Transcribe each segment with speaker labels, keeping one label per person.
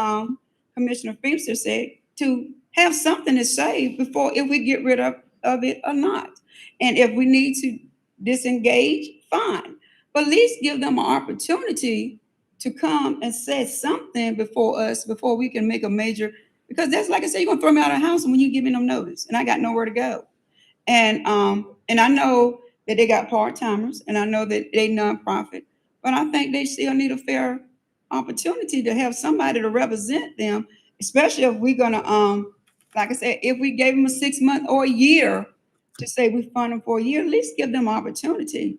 Speaker 1: um, Commissioner Feenster said, to have something to say before if we get rid of, of it or not. And if we need to disengage, fine. But at least give them an opportunity to come and say something before us, before we can make a major, because that's like I said, you're gonna throw me out of the house when you giving them notice, and I got nowhere to go. And, um, and I know that they got part-timers, and I know that they nonprofit, but I think they still need a fair opportunity to have somebody to represent them, especially if we're gonna, um, like I said, if we gave them a six-month or a year to say we fund them for a year, at least give them opportunity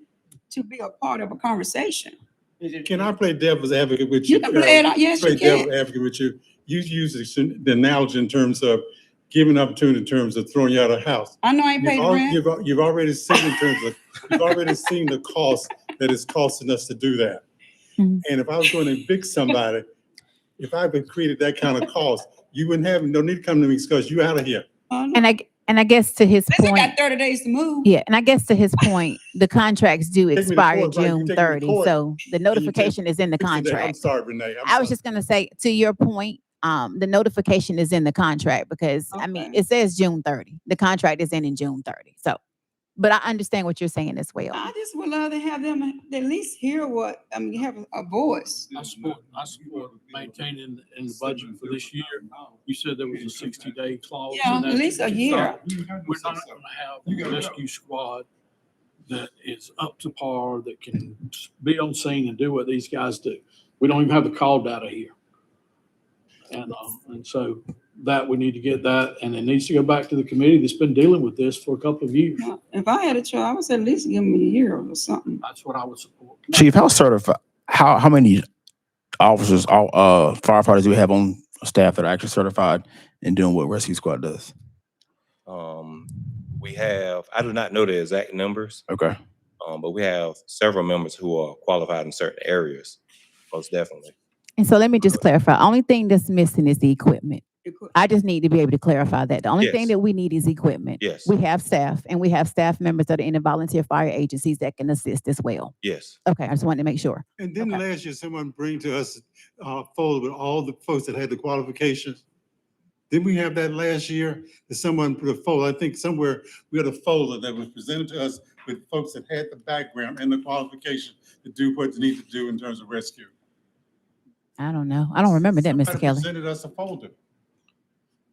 Speaker 1: to be a part of a conversation.
Speaker 2: Can I play devil's advocate with you?
Speaker 1: You can play it, out- yes,
Speaker 2: Play
Speaker 1: you can.
Speaker 2: devil's advocate with you. You use the syn- the analogy in terms of giving opportunity in terms of throwing you out of the house.
Speaker 1: I know I ain't
Speaker 2: You've
Speaker 1: paid the
Speaker 2: al-
Speaker 1: rent.
Speaker 2: You've, al- you've already seen in terms of, you've already seen the cost that it's costing us to do that.
Speaker 3: Mhm.
Speaker 1: Mm.
Speaker 2: And if I was going to evict somebody, if I had created that kind of cost, you wouldn't have, no need to come to me because you out of here.
Speaker 1: I know.
Speaker 3: And I, and I guess to his
Speaker 1: Listen,
Speaker 3: point,
Speaker 1: Uh, got thirty days to move.
Speaker 3: yeah, and I guess to his point, the contracts do
Speaker 2: me to
Speaker 3: expire
Speaker 2: court, right, you
Speaker 3: June
Speaker 2: take me to
Speaker 3: thirty,
Speaker 2: court,
Speaker 3: so the
Speaker 2: take-
Speaker 3: notification is in the
Speaker 2: Fix it there. I'm
Speaker 3: contract.
Speaker 2: sorry, Renee. I'm
Speaker 3: I was
Speaker 2: sorry.
Speaker 3: just gonna say, to your point, um, the notification is in the contract because, I mean,
Speaker 1: Okay.
Speaker 3: it says June thirty. The contract is in in June thirty, so. But I understand what you're saying as well.
Speaker 1: I just would love to have them at least hear what, I mean, have a- a voice.
Speaker 4: I support, I support maintaining in the budget for this year. You said there was a sixty day
Speaker 2: Oh,
Speaker 4: clause. in
Speaker 1: Yeah, at
Speaker 4: that.
Speaker 1: least a year.
Speaker 4: We're not gonna have a rescue squad that is up to par, that can be on scene and do what these guys do. We don't even have the call data here. And, um, and so that, we need to get that, and it needs to go back to the committee that's been dealing with this for a couple of years.
Speaker 1: Now, If I had a child, I would say at least give them a year or something.
Speaker 4: That's what I would support.
Speaker 5: Chief, how certified, how, how many officers, all, uh, firefighters do we have on staff that are actually certified in doing what rescue squad does?
Speaker 6: Um, we have, I do not know the exact numbers,
Speaker 5: Okay.
Speaker 6: um, but we have several members who are qualified in certain areas, most definitely.
Speaker 3: And so let me just clarify, only thing that's missing is the equipment.
Speaker 1: It could-
Speaker 3: I just need to be able to clarify that. The only thing
Speaker 6: Yes.
Speaker 3: that we need is equipment.
Speaker 6: Yes,
Speaker 3: We have staff and we have staff members that are in the volunteer fire agencies that can assist as well.
Speaker 6: yes.
Speaker 3: Okay, I just wanted to make sure.
Speaker 2: And then
Speaker 3: Okay.
Speaker 2: last year, someone bring to us a folder with all the folks that had the qualifications. Didn't we have that last year? That someone put a folder, I think somewhere, we had a folder that was presented to us with folks that had the background and the qualification to do what they need to do in terms of rescue.
Speaker 3: I don't know. I don't remember that, Mr.
Speaker 2: Somebody
Speaker 3: Kelly.
Speaker 2: Presented us a folder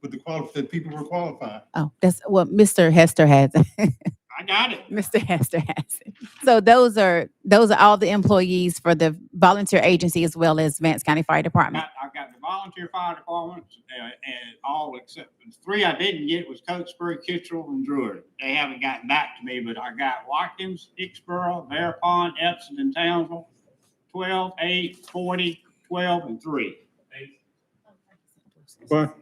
Speaker 2: with the qual, that people were qualified.
Speaker 3: Oh, that's what Mr. Hester has. it.
Speaker 4: I got it.
Speaker 3: Mr. Hester has it. So those are, those are all the employees for the volunteer agency as well as Vance County Fire Department.
Speaker 7: got, I've got the volunteer fire departments, uh, and all except, the three I didn't get was Cokesbury, Kittrell, and Drury. They haven't gotten back to me, but I got Watkins, Hicksboro, Bear Pond, Epsom, and Townsville, twelve, eight, forty, twelve, and three.
Speaker 2: But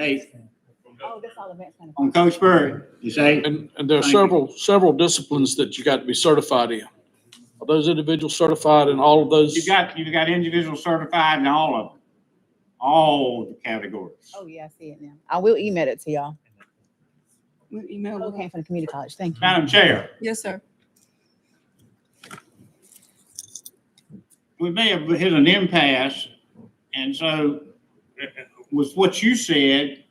Speaker 7: Eight
Speaker 3: Oh, that's all Vance County.
Speaker 7: on Cokesbury, you say?
Speaker 4: And, and there are
Speaker 7: Thank you.
Speaker 4: several, several disciplines that you got to be certified in. Are those individuals certified in all of those?
Speaker 7: You got, you got individual certified in all of them, all the categories.
Speaker 3: Oh, yeah, I see it now. I will email it to y'all.
Speaker 1: we email
Speaker 3: We
Speaker 1: with-
Speaker 3: came from the community college. Thank you.
Speaker 7: Madam Chair.
Speaker 1: Yes, sir.
Speaker 7: we may have hit an impasse. And so uh, with what you said,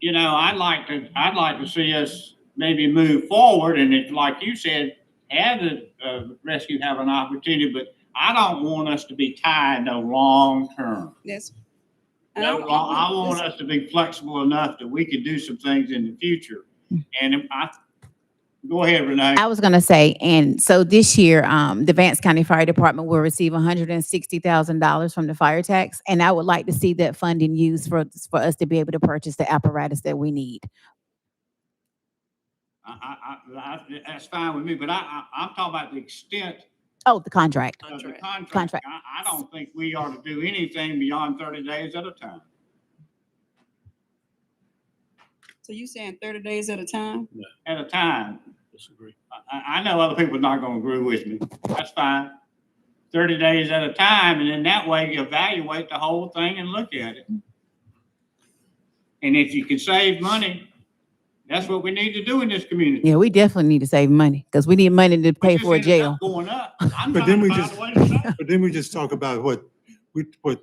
Speaker 7: you know, I'd like to, I'd like to see us maybe move forward and it, like you said, have the uh, rescue have an opportunity, but I don't want us to be tied no long term.
Speaker 1: Yes. And
Speaker 3: Um,
Speaker 7: No, I I want us to be flexible enough that we can do some things in the future. And if I, go ahead, Renee.
Speaker 3: Hmm. I was gonna say, and so this year, um, the Vance County Fire Department will receive hundred and sixty thousand dollars from the fire tax. And I would like to see that funding used for, for us to be able to purchase the apparatus that we need.
Speaker 7: I, I, I, that's fine with me, but I, I, I'm talking about the extent
Speaker 3: Oh, the contract.
Speaker 7: of the
Speaker 1: Contract.
Speaker 7: contract.
Speaker 3: Contract.
Speaker 7: I, I don't think we ought to do anything beyond thirty days at a time.
Speaker 1: So you saying thirty days at a time?
Speaker 7: At a time.
Speaker 4: Disagree.
Speaker 7: I, I- I know other people are not gonna agree with me. That's fine. Thirty days at a time, and then that way you evaluate the whole thing and look at it. And if you can save money, that's what we need to do in this community.
Speaker 3: Yeah, we definitely need to save money, because we need money to
Speaker 7: We
Speaker 3: pay
Speaker 7: just
Speaker 3: for a
Speaker 7: ended
Speaker 3: jail.
Speaker 7: up Going up. I'm
Speaker 2: But
Speaker 7: trying
Speaker 2: then we
Speaker 7: to find a
Speaker 2: just-
Speaker 7: way to save.
Speaker 2: But then we just talk about what, we, what